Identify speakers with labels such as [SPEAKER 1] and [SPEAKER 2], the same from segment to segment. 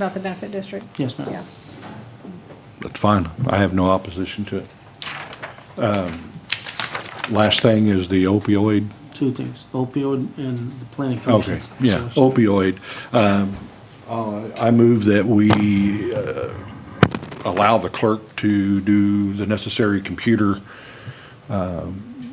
[SPEAKER 1] About the benefit district?
[SPEAKER 2] Yes, ma'am.
[SPEAKER 1] Yeah.
[SPEAKER 3] That's fine. I have no opposition to it. Um, Last thing is the opioid.
[SPEAKER 2] Two things, opioid and the planning commission.
[SPEAKER 3] Okay, yeah, opioid. Um, uh, I move that we uh, allow the clerk to do the necessary computer um,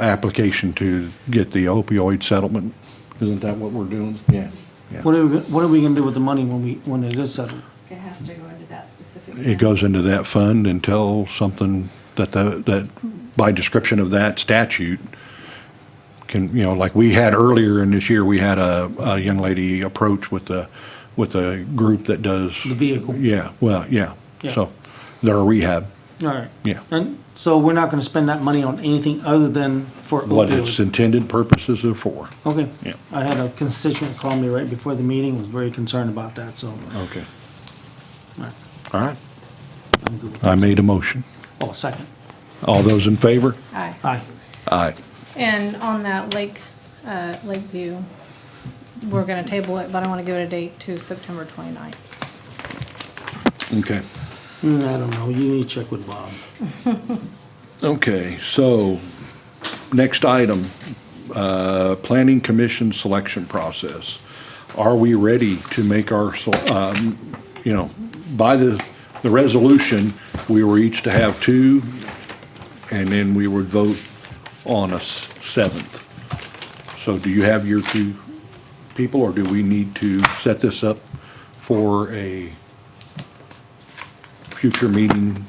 [SPEAKER 3] application to get the opioid settlement. Isn't that what we're doing? Yeah. yeah.
[SPEAKER 2] What are, we- what are we gonna do with the money when we, when it is settled?
[SPEAKER 4] It has to go into that specific.
[SPEAKER 3] It goes into that fund until something that the, that by description of that statute can, you know, like we had earlier in this year, we had a, a young lady approach with the, with a group that does.
[SPEAKER 2] The vehicle.
[SPEAKER 3] Yeah, well, yeah.
[SPEAKER 2] Yeah.
[SPEAKER 3] So they're a rehab,
[SPEAKER 2] All right.
[SPEAKER 3] Yeah.
[SPEAKER 2] And so we're not gonna spend that money on anything other than for
[SPEAKER 3] what its
[SPEAKER 2] opioid?
[SPEAKER 3] intended purposes are for.
[SPEAKER 2] Okay.
[SPEAKER 3] Yeah.
[SPEAKER 2] I had a constituent call me right before the meeting, was very concerned about that, so. all
[SPEAKER 3] Okay.
[SPEAKER 2] right,
[SPEAKER 3] All right.
[SPEAKER 2] I'm good with that.
[SPEAKER 3] I made a motion.
[SPEAKER 2] Oh, second.
[SPEAKER 3] All those in favor?
[SPEAKER 1] Aye.
[SPEAKER 2] Aye.
[SPEAKER 3] Aye.
[SPEAKER 1] And on that Lake, uh, Lakeview, we're gonna table it, but I wanna give it a date to September 29th.
[SPEAKER 3] Okay.
[SPEAKER 2] Mm, I don't know, you need to check with Bob.
[SPEAKER 3] Okay, so, next item, uh, Planning Commission selection process. Are we ready to make our, sel- um, you know, by the, the resolution, we were each to have two, and then we would vote on a s- seventh. So do you have your two people, or do we need to set this up for a future meeting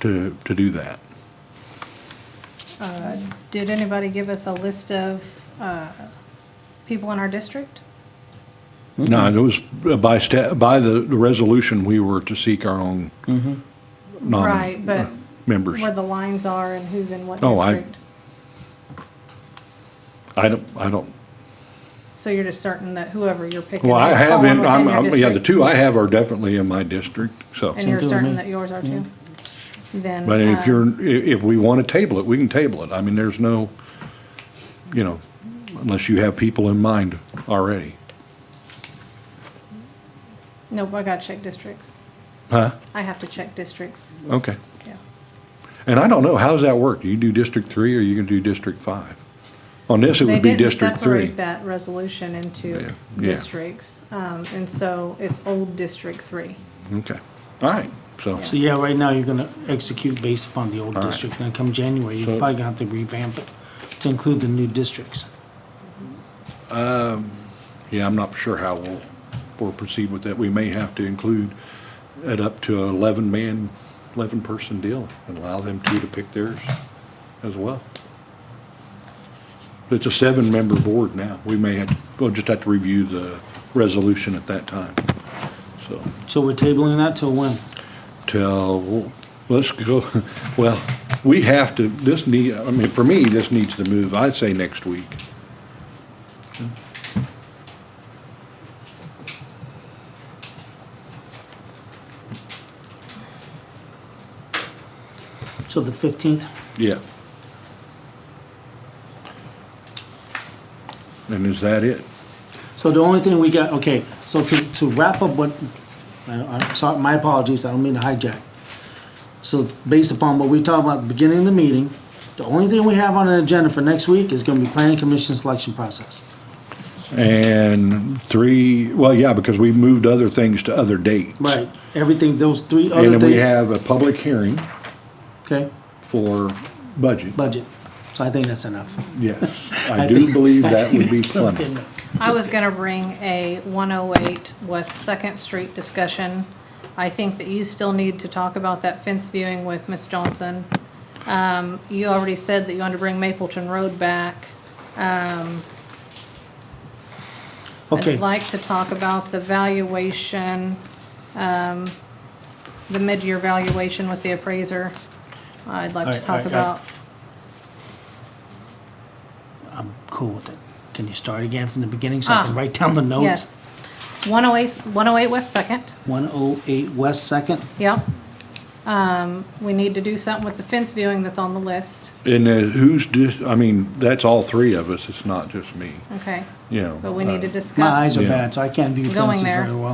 [SPEAKER 3] to, to do that?
[SPEAKER 1] Did anybody give us a list of, uh, people in our district?
[SPEAKER 3] No, it was by sta, by the, the resolution, we were to seek our own
[SPEAKER 1] Mm-hmm. Right, but
[SPEAKER 3] non-members.
[SPEAKER 1] where the lines are and who's in what
[SPEAKER 3] Oh, I-
[SPEAKER 1] district?
[SPEAKER 3] I don't, I don't,
[SPEAKER 1] So you're just certain that whoever you're picking.
[SPEAKER 3] well, I
[SPEAKER 1] is
[SPEAKER 3] have,
[SPEAKER 1] falling
[SPEAKER 3] in-
[SPEAKER 1] within
[SPEAKER 3] I'm,
[SPEAKER 1] your
[SPEAKER 3] I'm- yeah, the
[SPEAKER 1] district?
[SPEAKER 3] two I have are definitely in my district, so.
[SPEAKER 1] And you're
[SPEAKER 2] Same to me.
[SPEAKER 1] certain that yours are too? Then.
[SPEAKER 3] But
[SPEAKER 1] uh,
[SPEAKER 3] if you're, i- if we want to table it, we can table it. I mean, there's no, you know, unless you have people in mind already.
[SPEAKER 1] Nope, I gotta check districts.
[SPEAKER 3] Huh?
[SPEAKER 1] I have to check districts,
[SPEAKER 3] Okay.
[SPEAKER 1] yeah.
[SPEAKER 3] And I don't know, how does that work? Do you do District Three or you can do District Five? On this, it
[SPEAKER 1] They
[SPEAKER 3] would be
[SPEAKER 1] didn't
[SPEAKER 3] District Three.
[SPEAKER 1] Separate that resolution
[SPEAKER 3] Yeah,
[SPEAKER 1] into
[SPEAKER 3] yeah.
[SPEAKER 1] districts, um, and so it's old District Three.
[SPEAKER 3] Okay, all right, so.
[SPEAKER 2] So yeah, right now, you're gonna execute based upon the old
[SPEAKER 3] All right.
[SPEAKER 2] district, and then come January, you're
[SPEAKER 3] So-
[SPEAKER 2] probably gonna have to revamp it to include the new districts.
[SPEAKER 3] Yeah, I'm not sure how we'll, we'll proceed with that. We may have to include it up to eleven man, eleven person deal and allow them two to pick theirs as well. It's a seven member board now. We may have, we'll just have to review the resolution at that time. So,
[SPEAKER 2] So we're tabling that till when?
[SPEAKER 3] till, let's go, well, we have to, this need, I mean, for me, this needs to move, I'd say next week.
[SPEAKER 2] So the fifteenth?
[SPEAKER 3] Yeah. And is that it?
[SPEAKER 2] So the only thing we got, okay, so to, to wrap up what, I, I, sorry, my apologies, I don't mean to hijack. So based upon what we talked about at the beginning of the meeting, the only thing we have on the agenda for next week is gonna be planning commission selection process.
[SPEAKER 3] And three, well, yeah, because we moved other things to other dates.
[SPEAKER 2] Right, everything, those three
[SPEAKER 3] And
[SPEAKER 2] other
[SPEAKER 3] then we
[SPEAKER 2] things,
[SPEAKER 3] have a public hearing
[SPEAKER 2] okay,
[SPEAKER 3] for budget.
[SPEAKER 2] budget. So I think that's enough.
[SPEAKER 3] Yes, I do believe that would be plenty.
[SPEAKER 1] I was gonna bring a one oh eight West Second Street discussion. I think that you still need to talk about that fence viewing with Ms. Johnson. Um, you already said that you wanted to bring Mapleton Road back.
[SPEAKER 2] Okay,
[SPEAKER 1] I'd like to talk about the valuation, um, the mid-year valuation with the appraiser. I'd like to
[SPEAKER 2] Alright,
[SPEAKER 1] talk
[SPEAKER 2] alright,
[SPEAKER 1] about,
[SPEAKER 2] cool with it. Can you start again from the beginning so I can
[SPEAKER 1] Ah,
[SPEAKER 2] write down the notes?
[SPEAKER 1] yes. 108 108 West Second,
[SPEAKER 2] One oh eight West Second,
[SPEAKER 1] yep. Um, we need to do something with the fence viewing that's on the list,
[SPEAKER 3] And uh, who's just, I mean, that's all three of us, it's not just me,
[SPEAKER 1] okay?
[SPEAKER 3] you know.
[SPEAKER 1] But we need to
[SPEAKER 3] uh,
[SPEAKER 1] discuss.
[SPEAKER 2] my eyes are
[SPEAKER 3] Yeah.
[SPEAKER 2] bad, so I can't view
[SPEAKER 1] Going
[SPEAKER 2] fences
[SPEAKER 1] there.
[SPEAKER 2] very well.